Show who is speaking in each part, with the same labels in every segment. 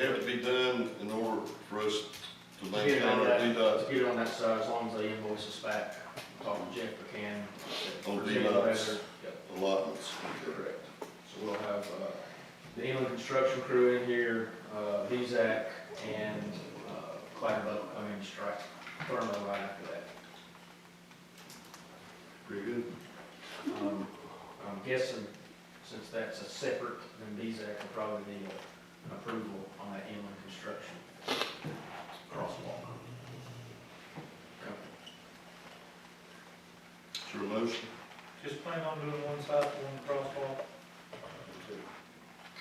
Speaker 1: It would be done in order for us to
Speaker 2: To Get
Speaker 1: maintain
Speaker 2: it on
Speaker 1: our
Speaker 2: that,
Speaker 1: DDOT
Speaker 2: to get it on that side, as long as they invoice us back, talk to Jeff McCann.
Speaker 1: On
Speaker 2: present the
Speaker 1: D-lots.
Speaker 2: letter. Yep.
Speaker 1: allotments.
Speaker 2: Correct. So we'll have, uh, the inland construction crew in here, uh, Hezak and, uh, Clyde come in and strike Thurman right after that.
Speaker 1: Pretty good.
Speaker 2: Um, I'm guessing, since that's a separate, then Hezak will probably need a- an approval on that inland construction crosswalk. Okay.
Speaker 1: It's your motion.
Speaker 3: Just plan on doing one side, one crosswalk,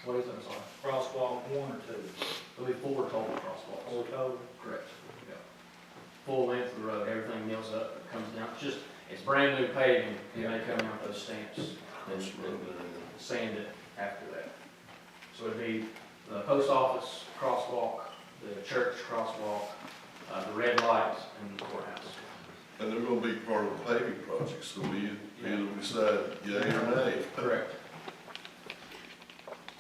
Speaker 2: What is it, I'm sorry?
Speaker 3: crosswalk one or two,
Speaker 2: There'll be four total crosswalks.
Speaker 3: or total.
Speaker 2: Correct. Yeah. Full length of the road, everything mills up, it comes down, it's just, it's brand new paving, and they come out those stamps and
Speaker 1: That's right there.
Speaker 2: and sand it after that. So it'd be the post office crosswalk, the church crosswalk, uh, the red light, and the courthouse.
Speaker 1: And they're gonna be part of the paving project, so we, we decide yea or nay.
Speaker 2: Correct.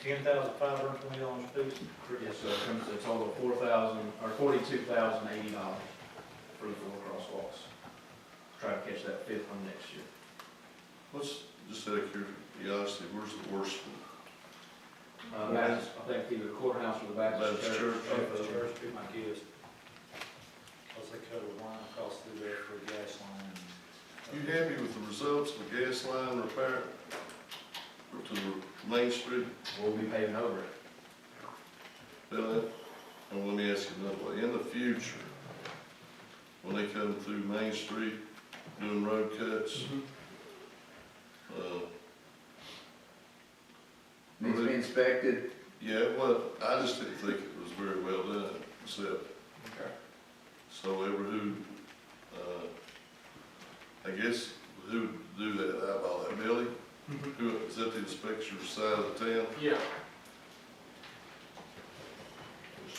Speaker 3: Ten thousand five hundred twenty dollars a piece.
Speaker 2: Yes, so it comes to a total of four thousand, or forty-two thousand eighty dollars for the four crosswalks. Try to catch that fifth one next year.
Speaker 1: Let's, just out of curiosity, where's the worst one?
Speaker 2: Uh, Baptist, I think either courthouse or the Baptist
Speaker 1: Baptist
Speaker 2: church.
Speaker 1: church.
Speaker 2: both of them.
Speaker 3: Church, be my guest. Cause they cut a line across through there for the gas line.
Speaker 1: You happy with the results of the gas line repair to the main street?
Speaker 2: We'll be paving over it.
Speaker 1: Billy, and let me ask you another way, in the future, when they come through Main Street doing road cuts, uh,
Speaker 4: Needs to be inspected.
Speaker 1: yeah, well, I just didn't think it was very well done, except,
Speaker 2: Okay.
Speaker 1: so ever who, uh, I guess, who would do that, eyeball that, Billy? Who, is that the inspector side of town?
Speaker 2: Yeah,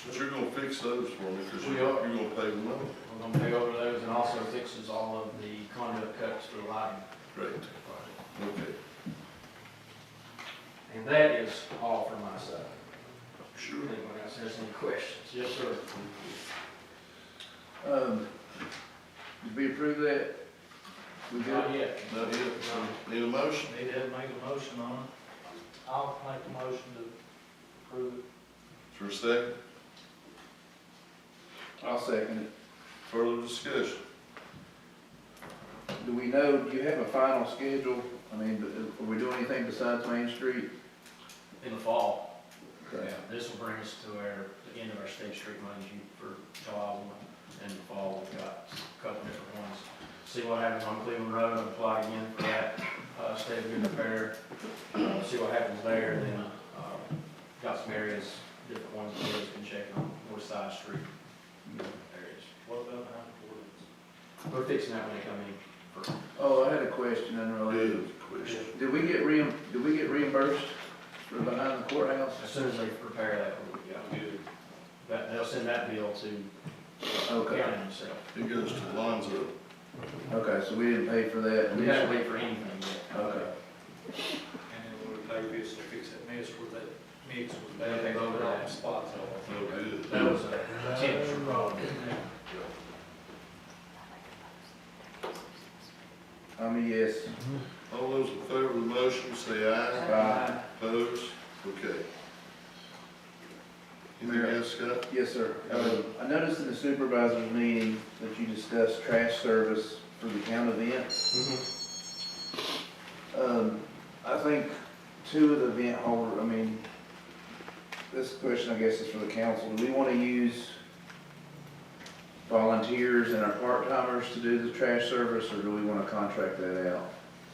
Speaker 1: But you're gonna fix those for me, because
Speaker 2: We
Speaker 1: you're,
Speaker 2: are.
Speaker 1: you're gonna pay them up,
Speaker 2: we're gonna pave over those and also fixes all of the conduit cuts for the lighting.
Speaker 1: great, okay,
Speaker 2: And that is all from my side.
Speaker 1: sure.
Speaker 2: Anyone else has any questions? Yes, sir.
Speaker 4: Um, did we approve that? We good?
Speaker 2: Not yet.
Speaker 1: Not yet. Need a motion?
Speaker 3: Need to make a motion on it. I'll make a motion to approve it.
Speaker 1: For a second,
Speaker 4: I'll second
Speaker 1: further discussion.
Speaker 4: it. Do we know, do you have a final schedule? I mean, uh, are we doing anything besides Main Street?
Speaker 2: In the fall. Yeah, this will bring us to our, the end of our state street money for July one. In the fall, we've got a couple different ones. See what happens on Cleveland Road, I'll apply again for that, uh, state of good repair. Uh, see what happens there, and then, uh, got some areas, different ones that we've been checking on, north side street areas.
Speaker 3: What about behind the
Speaker 2: We're fixing that when they come in.
Speaker 4: Oh, I had a question unrelated.
Speaker 1: Good question.
Speaker 4: Did we get reim, did we get reimbursed for behind the courthouse?
Speaker 2: As soon as they repair that, we'll be out. That, they'll send that bill to
Speaker 4: Okay,
Speaker 2: county themselves.
Speaker 1: It goes to Lonzo.
Speaker 4: okay, so we didn't pay for that.
Speaker 2: We haven't waited for anything yet.
Speaker 4: Okay.
Speaker 3: woods? And then we'll pay this to fix that mess where that mix was bad.
Speaker 2: They voted on it.
Speaker 3: Spots off.
Speaker 1: No good.
Speaker 2: That was a potential problem.
Speaker 4: I'm a yes.
Speaker 1: All those in favor of the motion, say aye.
Speaker 4: Aye.
Speaker 1: Opposed? Okay. Anything else, Scott?
Speaker 4: Yes, sir. Um, I noticed in the supervisor's meeting that you discussed trash service for the town events. Um, I think two of the event holder, I mean, this question, I guess, is for the council. Do we want to use volunteers and our part-timers to do the trash service, or do we want to contract that out?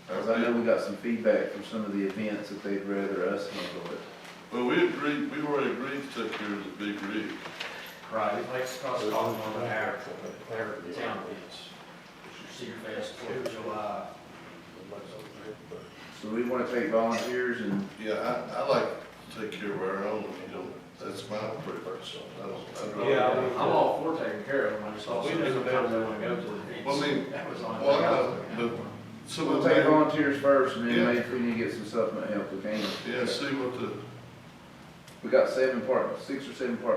Speaker 4: Because I know we got some feedback from some of the events that they'd rather us handle it.
Speaker 1: Well, we agreed, we already agreed to take care of the big rig.
Speaker 2: Right, it makes cost calling on the air, their town events. Cedar Fest, Fourth of July.
Speaker 4: So we want to take volunteers and,
Speaker 1: Yeah, I, I like to take care of our own, if you don't, that's my preference. I don't, I'd
Speaker 3: Yeah, I
Speaker 1: rather.
Speaker 3: would-
Speaker 2: I'm all for taking care of them, I just also
Speaker 3: We do.
Speaker 2: sometimes they wanna go to the events.
Speaker 1: Well, I mean,
Speaker 2: That was on.
Speaker 1: Well, I know, but some
Speaker 4: we'll
Speaker 1: of
Speaker 4: take
Speaker 1: them,
Speaker 4: volunteers first, and
Speaker 1: Yeah.
Speaker 4: then maybe if we need to get some supplement help, we can.
Speaker 1: yeah, see what the,
Speaker 4: We got seven part, six or seven part